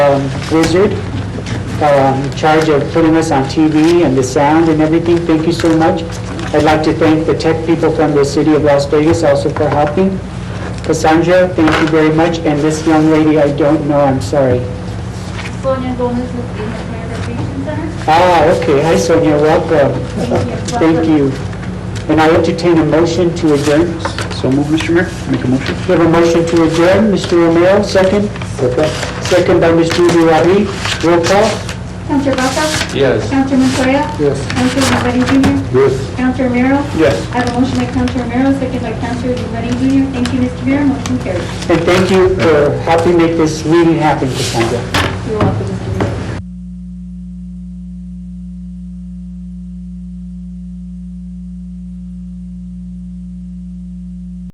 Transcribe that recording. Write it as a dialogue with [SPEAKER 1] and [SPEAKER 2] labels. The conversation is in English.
[SPEAKER 1] um, Blizzard, uh, in charge of putting us on TV and the sound and everything. Thank you so much. I'd like to thank the tech people from the city of Las Vegas also for helping. Cassandra, thank you very much, and this young lady, I don't know, I'm sorry.
[SPEAKER 2] Sonia Gomez with the Inventory Recreation Center.
[SPEAKER 1] Ah, okay, hi Sonia, welcome. Thank you. And I entertain a motion to adjourn.
[SPEAKER 3] So move, Mr. Mayor. Make a motion.
[SPEAKER 1] We have a motion to adjourn, Mr. Romero, second. Second by Mr. Uriari, roll call.
[SPEAKER 2] Counselor Baca?
[SPEAKER 3] Yes.
[SPEAKER 2] Counselor Montoya?
[SPEAKER 1] Yes.
[SPEAKER 2] Counselor Rosati Jr.?
[SPEAKER 3] Yes.
[SPEAKER 2] Counselor Romero?
[SPEAKER 3] Yes.
[SPEAKER 2] I have a motion by Counselor Romero, second by Counselor Rosati Jr. Thank you, Mr. Mayor, motion carries.
[SPEAKER 1] And thank you for helping make this meeting happen, Cassandra.
[SPEAKER 2] You're welcome.